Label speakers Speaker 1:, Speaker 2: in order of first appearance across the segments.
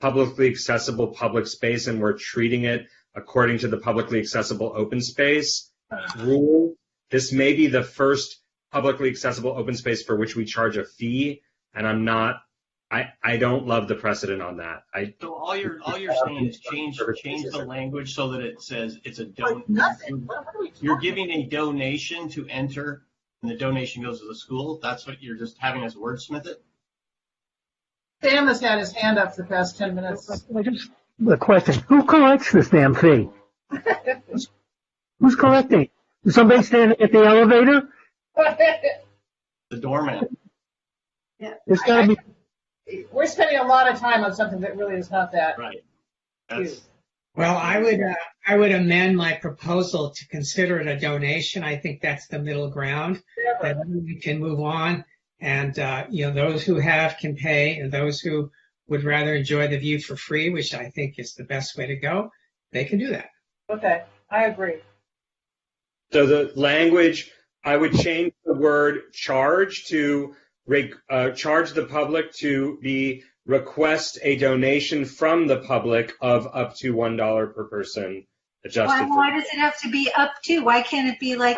Speaker 1: publicly accessible public space and we're treating it according to the publicly accessible open space rule. This may be the first publicly accessible open space for which we charge a fee, and I'm not, I, I don't love the precedent on that. I,
Speaker 2: So all you're, all you're saying is change, change the language so that it says it's a
Speaker 3: Like
Speaker 2: don,
Speaker 3: nothing. What what are we
Speaker 2: you're
Speaker 3: talking
Speaker 2: giving a donation to enter and the donation goes to the school. That's what you're just having us wordsmith it.
Speaker 3: Sam has had his hand up for the past 10 minutes.
Speaker 4: I just, a question. Who collects this damn fee? Who's collecting? Is somebody standing at the elevator?
Speaker 2: The doorman.
Speaker 4: It's gotta be,
Speaker 3: We're spending a lot of time on something that really is not that.
Speaker 2: Right. That's,
Speaker 5: Well, I would, uh, I would amend my proposal to consider it a donation. I think that's the middle ground. That we can move on and, uh, you know, those who have can pay and those who would rather enjoy the view for free, which I think is the best way to go, they can do that.
Speaker 3: Okay, I agree.
Speaker 1: so the language, I would change the word charge to, re- uh, charge the public to be, request a donation from the public of up to $1 per person
Speaker 6: Why,
Speaker 1: adjusted.
Speaker 6: why
Speaker 1: for-
Speaker 6: does it have to be up to? Why can't it be like,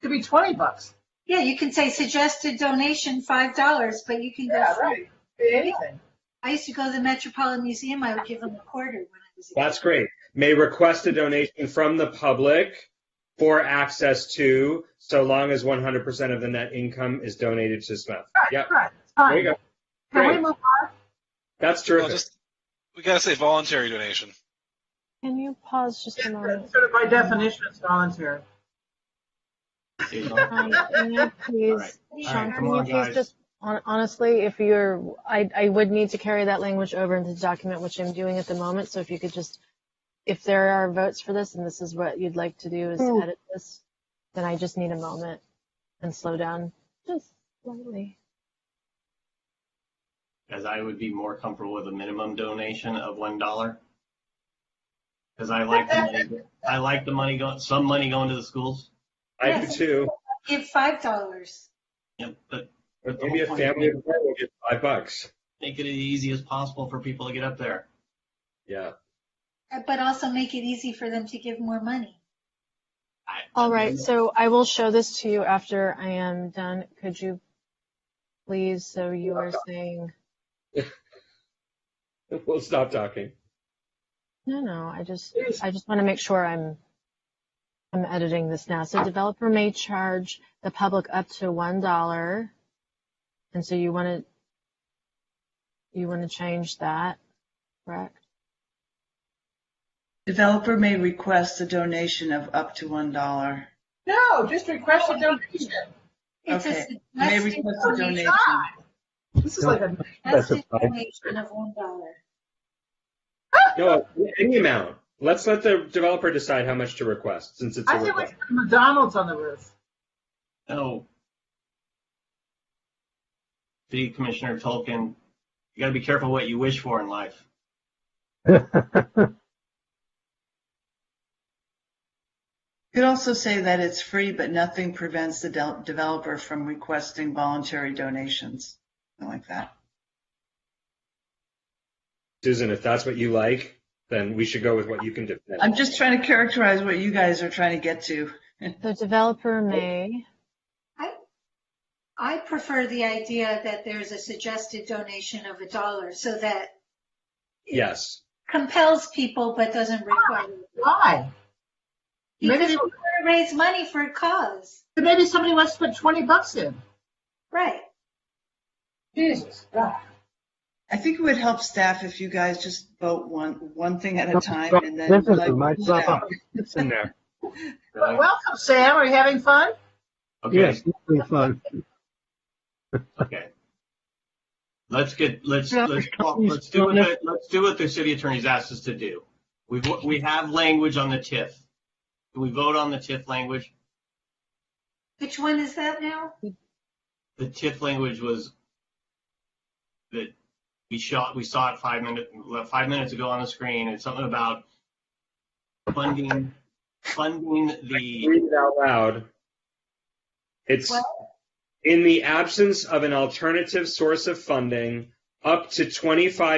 Speaker 3: Could be 20 bucks.
Speaker 6: yeah, you can say suggested donation $5, but you can
Speaker 3: Yeah,
Speaker 6: go,
Speaker 3: right. Anything.
Speaker 6: I used to go to the Metropolitan Museum, I would give them a quarter when I was a kid.
Speaker 1: That's great. May request a donation from the public for access to, so long as 100% of the net income is donated to Smith.
Speaker 3: Right,
Speaker 1: Yep,
Speaker 3: right.
Speaker 1: there you
Speaker 3: Fine.
Speaker 1: go.
Speaker 3: Can we
Speaker 1: Great.
Speaker 3: move
Speaker 1: That's
Speaker 7: Well,
Speaker 1: terrific.
Speaker 7: just, we gotta say voluntary donation.
Speaker 8: Can you pause just a
Speaker 3: on?
Speaker 8: moment?
Speaker 3: Sort of by definition, it's voluntary.
Speaker 2: you know,
Speaker 8: Um, can you please,
Speaker 2: All right, come
Speaker 8: Sean, can you
Speaker 2: on, guys.
Speaker 8: please just, hon- honestly, if you're, I, I would need to carry that language over into the document, which I'm doing at the moment. So if you could just, if there are votes for this and this is what you'd like to do is edit this, then I just need a moment and slow down just slightly.
Speaker 2: as I would be more comfortable with a minimum donation of $1. Cause I like, the money. I like the money going, some money going to the schools.
Speaker 1: I do too.
Speaker 6: Give $5.
Speaker 2: Yep, but
Speaker 1: But Maybe a family of four will get five bucks.
Speaker 2: make it as easy as possible for people to get up there.
Speaker 1: Yeah.
Speaker 6: Uh, But also make it easy for them to give more money.
Speaker 2: I-
Speaker 8: All right, so I will show this to you after I am done. Could you please, so you are saying,
Speaker 1: We'll stop talking.
Speaker 8: no, no, I just,
Speaker 3: Please.
Speaker 8: I just want to make sure I'm, I'm editing this now. So developer may charge the public up to one dollar. And so you want to, you want to change that, correct?
Speaker 9: Developer may request a donation of up to one dollar.
Speaker 3: No, just request a donation.
Speaker 6: It's a
Speaker 9: Okay. May
Speaker 6: suggested
Speaker 9: request a
Speaker 6: donation.
Speaker 9: donation.
Speaker 3: This is like a,
Speaker 4: That's a
Speaker 6: Suggested
Speaker 4: five.
Speaker 6: donation of $1.
Speaker 1: No, any amount. Let's let the developer decide how much to request, since it's a
Speaker 3: I think we
Speaker 1: request.
Speaker 3: should put McDonald's on the roof.
Speaker 2: No. City Commissioner Tolkien, you gotta be careful what you wish for in life.
Speaker 9: You could also say that it's free, but nothing prevents the del- developer from requesting voluntary donations, something like that.
Speaker 1: Susan, if that's what you like, then we should go with what you can do.
Speaker 9: I'm just trying to characterize what you guys are trying to get to.
Speaker 8: The developer may,
Speaker 6: I, I prefer the idea that there's a suggested donation of a dollar so that
Speaker 1: Yes.
Speaker 6: compels people but doesn't require.
Speaker 3: Why?
Speaker 6: Because
Speaker 3: Maybe-
Speaker 6: we want to raise money for a cause.
Speaker 3: Maybe somebody wants to put 20 bucks in.
Speaker 6: Right.
Speaker 3: Jesus, God.
Speaker 9: I think it would help staff if you guys just vote one, one thing at a time and then.
Speaker 4: This is
Speaker 9: let
Speaker 4: my
Speaker 9: people vote.
Speaker 4: problem. It's in there.
Speaker 3: Well, Welcome, Sam. Are you having fun?
Speaker 2: Okay,
Speaker 4: Yes, it's really fun.
Speaker 2: okay. Let's get, let's,
Speaker 4: Yeah.
Speaker 2: let's, let's do what, the- let's do what the city attorney's asked us to do. We've, we have language on the TIF. Can we vote on the TIF language?
Speaker 6: Which one is that now?
Speaker 2: The TIF language was that we shot, we saw it five minutes, five minutes ago on the screen. It's something about funding, funding the,
Speaker 1: Read it out loud. It's in the absence of an alternative source of funding, up to 25